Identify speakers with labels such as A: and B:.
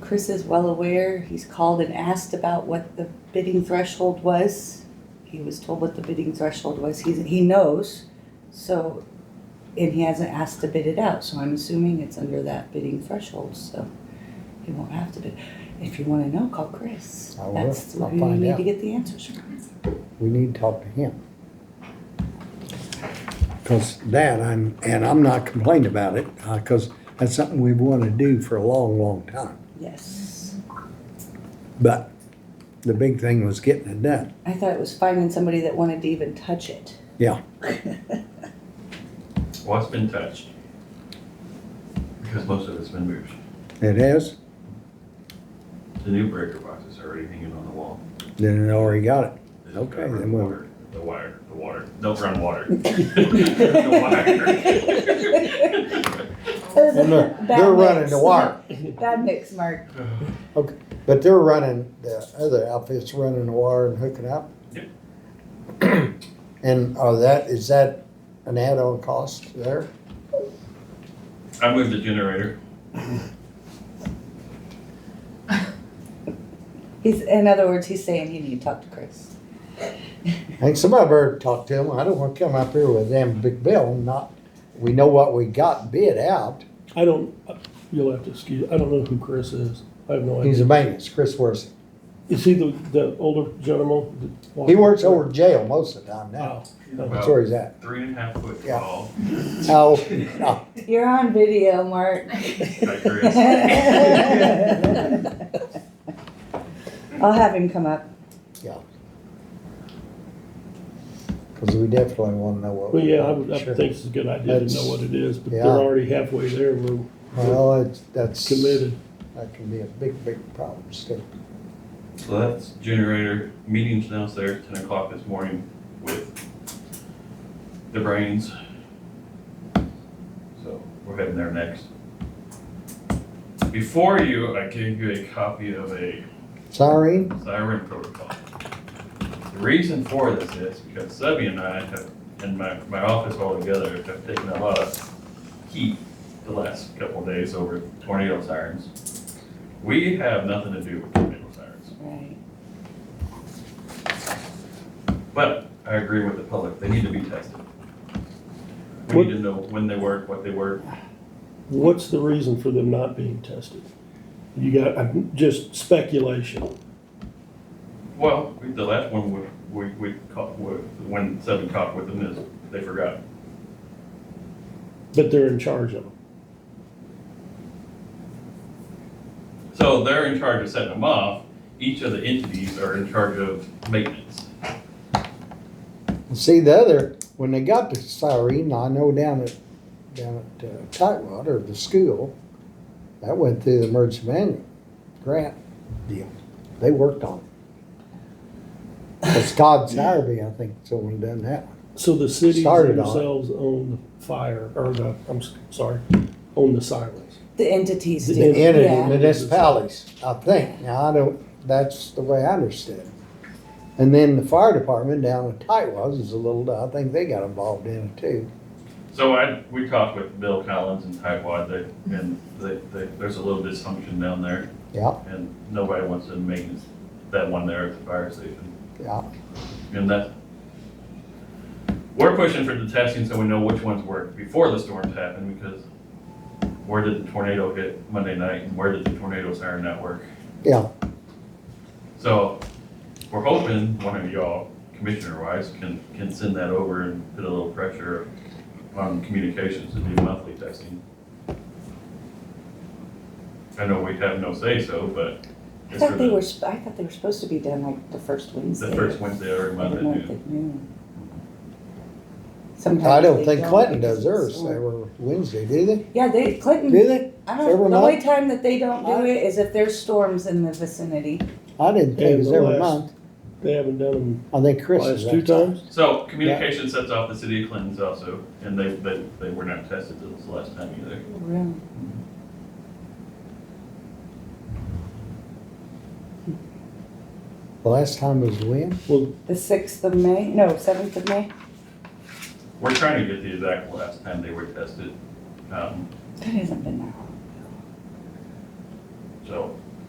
A: Chris is well aware. He's called and asked about what the bidding threshold was. He was told what the bidding threshold was. He's, he knows, so, and he hasn't asked to bid it out, so I'm assuming it's under that bidding threshold, so he won't have to bid. If you wanna know, call Chris.
B: I will.
A: That's
B: I'll
A: where you
B: find
A: need
B: out.
A: to get the answers from.
B: We need to talk to him. Cause that, I'm, and I'm not complaining about it, uh, cause that's something we've wanted to do for a long, long time.
A: Yes.
B: But the big thing was getting it done.
A: I thought it was finding somebody that wanted to even touch it.
B: Yeah,
C: What's been touched? Because most of it's been moved.
B: it is,
C: The new breaker box is already hanging on the wall.
B: then it already got it.
C: It's
B: Okay,
C: covered
B: then
C: in
B: we'll-
C: water. The wire, the water, don't run water. The wire.
B: And they're, they're running the wire,
A: Bad mix, Mark.
B: but they're running, the other outfit's running the wire and hooking up.
C: Yep.
B: And are that, is that an add-on cost there?
C: I moved the generator.
A: He's, in other words, he's saying you need to talk to Chris.
B: And somebody better talk to him. I don't want to come up here with them big bill and not, we know what we got bid out.
D: I don't, you'll have to excuse, I don't know who Chris is. I have no
B: He's
D: idea.
B: a maintenance, Chris Worthing.
D: Is he the, the older gentleman? that-
B: He works over jail most of the time now.
D: Oh, no.
B: That's where he's at.
C: Three and a half foot
B: Yeah.
C: tall.
B: How, no,
A: You're on video, Mark. I'll have him come up.
B: because we definitely want to know what.
D: Well,
B: we
D: yeah, I
B: want,
D: would, I
B: sure.
D: would think it's a good idea to know what it is, but they're
B: Yeah.
D: already halfway there. We're
B: Well, it's, that's,
D: committed.
B: that can be a big, big problem still.
C: So that's generator, meetings downstairs, ten o'clock this morning with the brains. So we're heading there next. Before you, I gave you a copy of a
B: Sorry,
C: siren protocol. The reason for this is because Subby and I have, and my, my office altogether, have taken a lot of heat the last couple of days over tornado sirens. We have nothing to do with tornado sirens.
A: Right.
C: But I agree with the public, they need to be tested. We need to know when they work, what they work.
D: What's the reason for them not being tested? You got, I'm just speculation.
C: Well, we- the last one we, we, we caught, we- when Seven caught with them is, they forgot.
D: But they're in charge of them.
C: So they're in charge of setting them off, each of the entities are in charge of maintenance.
B: see the other, when they got the siren, I know down at, down at uh, Tightwater, the school, that went through the emergency manual grant deal. They worked on it. It's Todd Sowerby, I think, someone done that one.
D: So the cities
B: Started on it.
D: themselves own the fire, or the, I'm s- sorry, own the sirens.
A: The entities
D: The
A: do.
B: The entity,
A: Yeah.
B: municipalities, I think. Now, I don't, that's the way I understood it. And then the fire department down at Tightwater is a little, I think they got involved in it too.
C: So I, we talked with Bill Collins and Tightwad, they, and they, they, there's a little dysfunction down there,
B: Yeah,
C: and nobody wants to maintenance that one there at the fire station.
B: yeah.
C: And that, we're pushing for the testing so we know which ones worked before the storms happen, because where did the tornado hit Monday night, and where did the tornado siren not work?
B: Yeah.
C: So, we're hoping one of y'all, commissioner-wise, can, can send that over and put a little pressure on communications to do monthly testing. I know we have no say-so, but
A: I
C: it's for
A: thought they were,
C: the,
A: sp- I thought they were supposed to be done like the first Wednesday.
C: the first Wednesday of every
A: of
C: month
A: the
C: at
A: month
C: noon.
A: at noon. Sometimes
B: I don't
A: they
B: think Clinton
A: because
B: does
A: it's
B: theirs.
A: sore.
B: They were Wednesday, do they?
A: Yeah, they,
B: Do
A: Clinton,
B: they?
A: I
B: every
A: don't, the
B: month?
A: only time that they don't do it is if there's storms in the vicinity.
B: I didn't think it was
D: Yeah, the
B: every
D: last-
B: month.
D: They haven't done them
B: I think Chris is.
D: last two times?
C: So communication sets off the city of Clinton's also, and they, they, they were not tested till this last time either.
A: Really?
B: The last time was when?
D: Well,
A: The sixth of May, no, seventh of May?
C: We're trying to get the exact last time they were tested. Um,
A: That hasn't been that long.
C: so